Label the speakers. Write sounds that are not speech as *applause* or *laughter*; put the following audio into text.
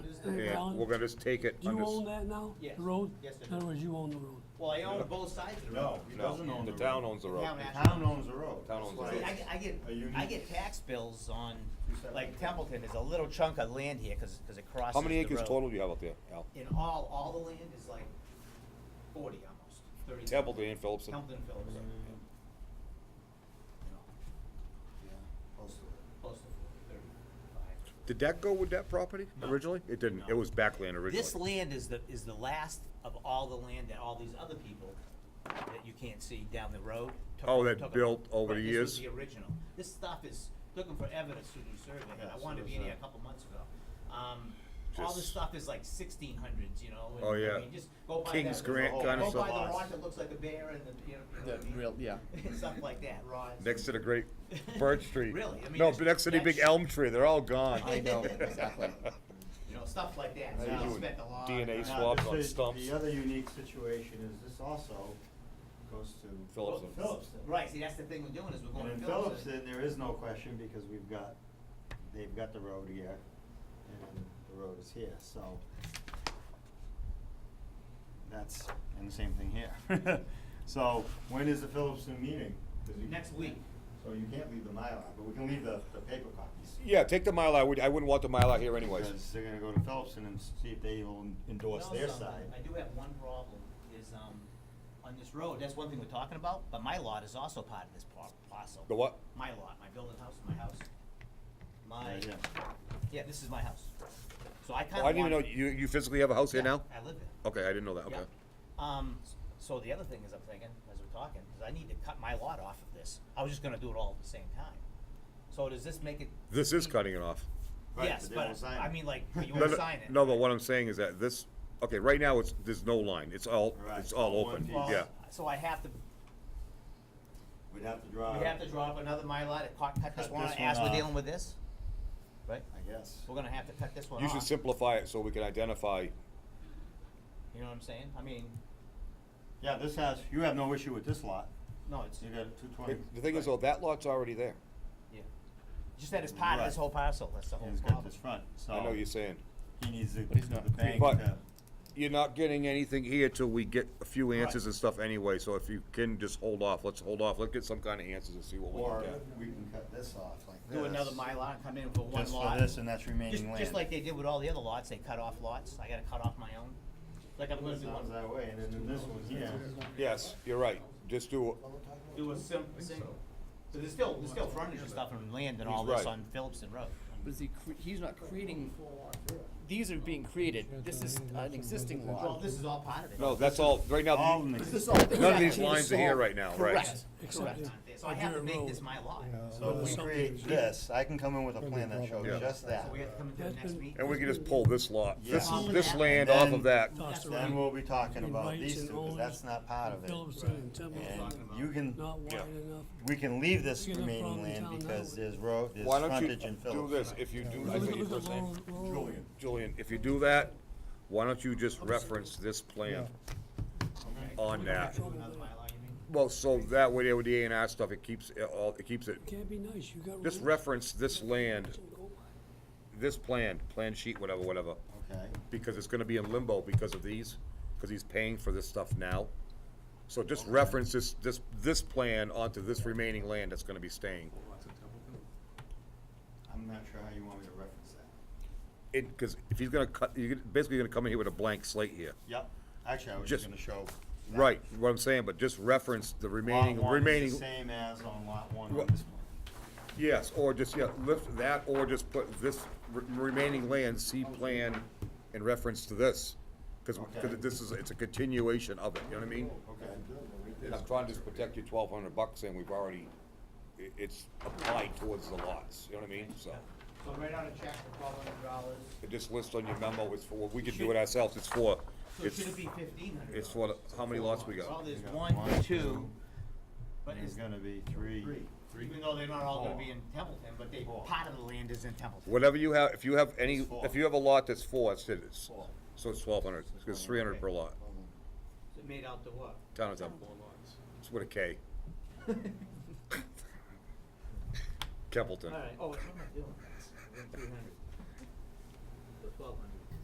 Speaker 1: And we're gonna just take it.
Speaker 2: Do you
Speaker 1: under s-
Speaker 2: own that now?
Speaker 3: Yes.
Speaker 2: The road?
Speaker 3: Yes, I
Speaker 2: In other words, you own the road.
Speaker 3: Well, I own both sides of the road.
Speaker 4: No, he doesn't own the
Speaker 1: The
Speaker 4: road.
Speaker 1: town owns the road.
Speaker 3: Town
Speaker 4: The
Speaker 3: has-
Speaker 4: town owns the road.
Speaker 1: Town owns the
Speaker 4: That's
Speaker 3: See,
Speaker 4: why
Speaker 3: I,
Speaker 4: it's-
Speaker 3: I get,
Speaker 4: Are you
Speaker 3: I
Speaker 4: new?
Speaker 3: get tax bills on,
Speaker 4: You said-
Speaker 3: like Templeton is a little chunk of land here, cause, 'cause it crosses the
Speaker 1: How
Speaker 3: road.
Speaker 1: many acres total do you have out there, Al?
Speaker 3: In all, all the land is like forty almost, thirty.
Speaker 1: Templeton and Phillipsen?
Speaker 3: Templeton Phillips. You know,
Speaker 4: Yeah, close to it.
Speaker 3: Close to thirty-five.
Speaker 1: Did that go with that property
Speaker 3: No.
Speaker 1: originally? It didn't, it
Speaker 3: No.
Speaker 1: was backland
Speaker 3: This
Speaker 1: originally.
Speaker 3: land is the, is the last of all the land that all these other people that you can't see down the road. took-
Speaker 1: Oh, that
Speaker 3: took-
Speaker 1: built over
Speaker 3: right,
Speaker 1: the
Speaker 3: this was
Speaker 1: years?
Speaker 3: the original. This stuff is, looking for evidence to do survey, and I
Speaker 4: Yeah,
Speaker 3: wanted to be
Speaker 4: so
Speaker 3: in
Speaker 4: is
Speaker 3: here a
Speaker 4: that.
Speaker 3: couple months ago. Um, all this
Speaker 1: Just-
Speaker 3: stuff is like sixteen hundreds, you know,
Speaker 1: Oh,
Speaker 3: and, I
Speaker 1: yeah.
Speaker 3: mean, just go by that.
Speaker 1: King's Grant
Speaker 3: go
Speaker 1: kinda
Speaker 3: by the
Speaker 4: stuff.
Speaker 3: rock that looks like a bear and the, you know, you know.
Speaker 5: The
Speaker 3: what I mean?
Speaker 5: real-
Speaker 3: *laughs*
Speaker 5: yeah.
Speaker 3: Stuff like that, rods.
Speaker 1: Next to the great birch
Speaker 3: *laughs*
Speaker 1: tree.
Speaker 3: Really? I mean,
Speaker 1: No,
Speaker 3: it's-
Speaker 1: but next to the big
Speaker 3: that's-
Speaker 1: elm tree, they're all gone.
Speaker 5: I know, exactly.
Speaker 3: You know, stuff like that, so
Speaker 4: How you
Speaker 3: I
Speaker 4: doing?
Speaker 3: spent a lot.
Speaker 1: DNA
Speaker 3: of-
Speaker 1: They
Speaker 4: Now,
Speaker 1: swap
Speaker 4: this
Speaker 1: on
Speaker 4: is-
Speaker 1: stumps.
Speaker 4: The other unique situation is this also goes to.
Speaker 1: Phillipsen.
Speaker 4: Phillipston.
Speaker 3: Right, see, that's the thing we're doing, is we're
Speaker 4: And
Speaker 3: going
Speaker 4: in
Speaker 3: to Phillips.
Speaker 4: Phillipston, there is no question because we've got, they've got the road here and the road is here, so. That's, and the same thing here. *laughs* So when is the Phillipston meeting? 'Cause you-
Speaker 3: Next week.
Speaker 4: So you can't leave the Mylar, but we can leave the, the paper copies.
Speaker 1: *laughs* Yeah, take the mile. I would, I wouldn't want the mile out here anyways.
Speaker 4: Because they're gonna go to Phillipston and see if they will endorse
Speaker 3: No,
Speaker 4: their
Speaker 3: something.
Speaker 4: side.
Speaker 3: I do have one problem, is, um, on this road, that's one thing we're talking about, but my lot is also part of this par- parcel.
Speaker 1: The what?
Speaker 3: My lot, my building house, my house. My,
Speaker 4: Right here.
Speaker 3: yeah, this is my house. So I
Speaker 1: Oh,
Speaker 3: kinda
Speaker 1: I didn't even
Speaker 3: wanna-
Speaker 1: know, you, you physically have a house here
Speaker 3: Yeah,
Speaker 1: now?
Speaker 3: I live there.
Speaker 1: Okay, I didn't know that,
Speaker 3: Yeah.
Speaker 1: okay.
Speaker 3: Um, s- so the other thing is I'm thinking, as we're talking, is I need to cut my lot off of this. I was just gonna do it all at the same time. So does this make it?
Speaker 1: This is cutting it off.
Speaker 4: Right,
Speaker 3: Yes,
Speaker 4: they won't
Speaker 3: but
Speaker 4: sign
Speaker 3: I
Speaker 4: it.
Speaker 3: mean,
Speaker 4: *laughs*
Speaker 3: like, but you
Speaker 1: No,
Speaker 3: wanna
Speaker 1: no,
Speaker 3: sign it.
Speaker 1: No, but what I'm saying is that this, okay, right now, it's, there's no line, it's all,
Speaker 4: Right,
Speaker 1: it's all
Speaker 4: all one
Speaker 1: open,
Speaker 4: piece.
Speaker 3: Well,
Speaker 1: yeah.
Speaker 3: So I have to,
Speaker 4: We'd have to draw.
Speaker 3: we have to draw up another Mylar to cut, cut this
Speaker 4: Cut
Speaker 3: one
Speaker 4: this
Speaker 3: off as
Speaker 4: one
Speaker 3: we're
Speaker 4: off.
Speaker 3: dealing with this? Right?
Speaker 4: I guess.
Speaker 3: We're gonna have to cut this one
Speaker 1: You should
Speaker 3: off, you
Speaker 1: simplify it so we can identify,
Speaker 3: know what I'm saying? I mean,
Speaker 4: Yeah, this has, you have no issue with this lot.
Speaker 3: no, it's,
Speaker 4: You got two twenty.
Speaker 1: the thing is though, that lot's already there.
Speaker 3: yeah. Just that it's part of this
Speaker 4: Right.
Speaker 3: whole parcel, that's the whole
Speaker 4: He's got
Speaker 3: problem.
Speaker 4: this front, so.
Speaker 1: uh, I know you're saying.
Speaker 4: He needs the,
Speaker 5: But he's not-
Speaker 4: the bank
Speaker 1: But-
Speaker 4: to-
Speaker 1: You're not getting anything here till we get a few
Speaker 4: Right.
Speaker 1: answers and stuff anyway, so if you can just hold off, let's hold off, let's get some kind of answers and see what we
Speaker 4: Or
Speaker 1: can get.
Speaker 4: we can cut this off like this.
Speaker 3: Do another Mylar and come in for one
Speaker 4: Just for
Speaker 3: lot.
Speaker 4: this and that's
Speaker 3: Just,
Speaker 4: remaining land.
Speaker 3: just like they did with all the other lots, they cut off lots, I gotta cut off my own. Like I'm gonna
Speaker 4: This
Speaker 3: do
Speaker 4: one's
Speaker 3: one,
Speaker 4: that way, and then this one's here.
Speaker 1: Yes, you're right, just do,
Speaker 3: do a simple, single. So there's still, there's still frontage and stuff and land and
Speaker 1: He's
Speaker 3: all this
Speaker 1: right.
Speaker 3: on Phillipston Road.
Speaker 5: But is he cre- he's not creating, these are being created, this is an existing
Speaker 3: Well,
Speaker 5: lot.
Speaker 3: this is all part of it.
Speaker 1: no, that's all, right now.
Speaker 4: All in
Speaker 5: Is
Speaker 4: the-
Speaker 5: this all-
Speaker 1: None of these
Speaker 5: Exactly.
Speaker 1: lines are here right now, right?
Speaker 5: Correct, correct.
Speaker 3: So I have to make this my lot.
Speaker 4: So if we create this, I can come in with a plan that shows
Speaker 1: Yeah.
Speaker 4: just
Speaker 3: So
Speaker 4: that.
Speaker 3: we have to come into the next meeting.
Speaker 1: And we can just pull this lot, this,
Speaker 4: Yeah.
Speaker 1: this land off of that.
Speaker 2: Tossed
Speaker 4: Then
Speaker 2: around.
Speaker 4: we'll be talking
Speaker 2: It
Speaker 4: about
Speaker 2: bites
Speaker 4: these
Speaker 2: and
Speaker 4: two, because
Speaker 2: owns
Speaker 4: that's not part of it.
Speaker 2: Phillipson and Templeton,
Speaker 4: And you can,
Speaker 2: not wide
Speaker 1: Yeah.
Speaker 2: enough.
Speaker 4: we can leave this
Speaker 2: You're gonna
Speaker 4: remaining
Speaker 2: problem
Speaker 4: land
Speaker 2: town
Speaker 4: because
Speaker 2: now.
Speaker 4: there's road, there's
Speaker 1: Why don't you
Speaker 4: frontage in
Speaker 1: do
Speaker 4: Phillips.
Speaker 1: this, if you do, I
Speaker 2: Look
Speaker 1: forget
Speaker 2: at, look
Speaker 1: your
Speaker 2: at
Speaker 1: first name,
Speaker 2: Laurel, Laurel,
Speaker 1: Julian, if you do that, why don't you just reference this plan on that?
Speaker 3: Do another Mylar, you mean?
Speaker 1: Well, so that way, there with the A and R stuff, it keeps, it all, it keeps it,
Speaker 2: can't be nice, you got.
Speaker 1: just
Speaker 2: road.
Speaker 1: reference this land, this plan, plan sheet, whatever, whatever,
Speaker 4: Okay,
Speaker 1: because it's gonna be in limbo because of these, because he's paying for this stuff now. So just reference this, this, this plan onto this remaining land that's gonna be staying.
Speaker 4: I'm not sure how you want me to reference that.
Speaker 1: It, cause if he's gonna cut, you're basically gonna come in here with a blank slate here.
Speaker 4: Yep, actually, I was just
Speaker 1: Just-
Speaker 4: gonna show. that.
Speaker 1: Right, what I'm saying, but just reference the remaining,
Speaker 4: Lot one is the
Speaker 1: remaining,
Speaker 4: Same as on lot one
Speaker 1: Wha-
Speaker 4: on this plan.
Speaker 1: yes, or just, yeah, lift that, or just put this re- remaining land, C plan, in reference to this. Cause, 'cause
Speaker 4: Okay.
Speaker 1: this is, it's a continuation of it, you know what I mean?
Speaker 4: Okay.
Speaker 1: I'm trying to just protect your twelve hundred bucks, and we've already, i- it's applied towards the lots, you know what I mean, so.
Speaker 3: So right on a check for twelve hundred dollars.
Speaker 1: It just lists on your memo, it's for, we can do it ourselves, it's for,
Speaker 3: So
Speaker 1: it's,
Speaker 3: should it be fifteen hundred?
Speaker 1: it's for, the- how many lots we
Speaker 3: Well,
Speaker 1: got?
Speaker 3: there's
Speaker 4: We got
Speaker 3: one,
Speaker 4: one,
Speaker 3: two,
Speaker 4: two,
Speaker 3: but
Speaker 4: There's
Speaker 3: it's,
Speaker 4: gonna be three.
Speaker 3: even though they're not all gonna be
Speaker 4: Four.
Speaker 3: in Templeton, but they,
Speaker 4: Four.
Speaker 3: part of the land is in Templeton.
Speaker 1: Whatever you have, if you have any,
Speaker 4: It's four.
Speaker 1: if you have a lot that's four, it's, it's,
Speaker 4: Four.
Speaker 1: so it's twelve hundred, it's three hundred per lot,
Speaker 3: So it made out to what?
Speaker 1: town of Temple. It's with a K. Templeton.
Speaker 3: Alright, oh, what am I doing? Three hundred. So twelve hundred.